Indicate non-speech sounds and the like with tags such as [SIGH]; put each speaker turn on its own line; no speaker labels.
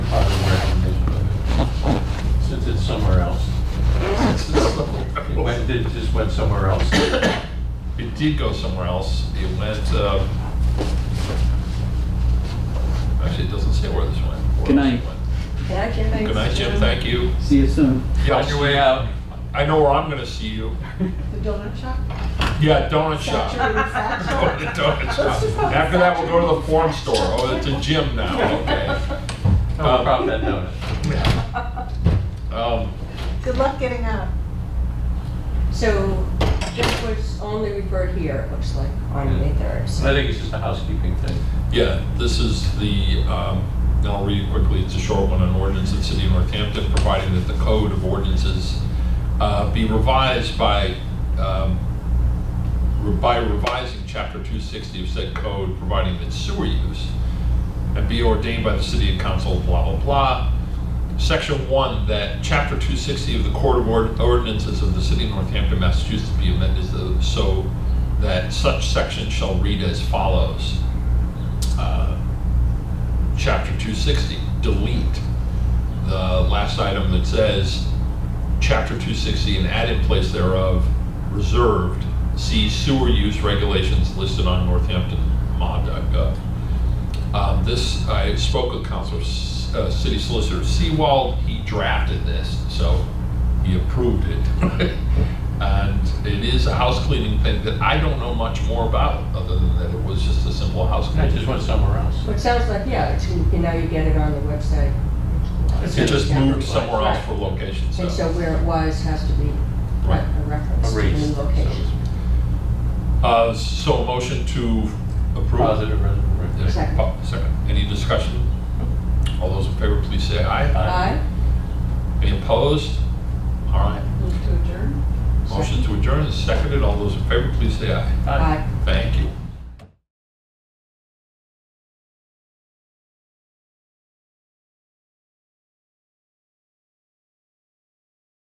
somewhere else. It went, it just went somewhere else.
It did go somewhere else. It went, um, actually, it doesn't say where this went. where
Good
else it
night.
went.
Yeah, Jim, thanks.
Good night, Jim, thank you.
See you soon.
Yeah, on your way out, I know where I'm gonna see you.
The donut shop?
Yeah, donut shop. [LAUGHS]
Factory,
Go to
factory.
the donut
Let's
shop.
just have a
After that, we'll
factory.
go to the form store. Oh, it's a gym now, okay.
How about that donut?
Um,
Good luck getting out.
So this was only referred here, it looks like, on May 3rd. so-
I think it's just a housekeeping thing.
Yeah, this is the, um, and I'll read it quickly, it's a short one, an ordinance of the city of Northampton providing that the code of ordinances uh, be revised by, um, re- by revising chapter 260 of said code, providing that sewer use, and be ordained by the city and council, blah, blah, blah. Section one, that chapter 260 of the Court of Ord- Ordinances of the City of Northampton, Massachusetts be amended so- so that such section shall read as follows. Uh, Chapter 260, delete the last item that says, Chapter 260 and add in place thereof, reserved, see sewer use regulations listed on northamptonma.gov. Um, This, I spoke with Counselor, S- uh, City Solicitor Seawald, he drafted this, so he approved it. [LAUGHS] And it is a house cleaning thing that I don't know much more about, other than that it was just a simple house
I
cleaning.
just went somewhere else.
Well, it sounds like, yeah, it's, you now you get it on the website.
It just moved somewhere else
Right.
for location,
And so
so.
where it was has to be
Right.
a reference to the
Erased,
new
so
location.
Uh, so a motion to approve.
Positive,
Yeah,
res-
Second.
po- Second. Any discussion? All those in favor, please say aye.
Aye?
Any opposed? All right.
Move to adjourn?
Motion to adjourn is seconded. All those in favor, please say aye.
Aye.
Aye.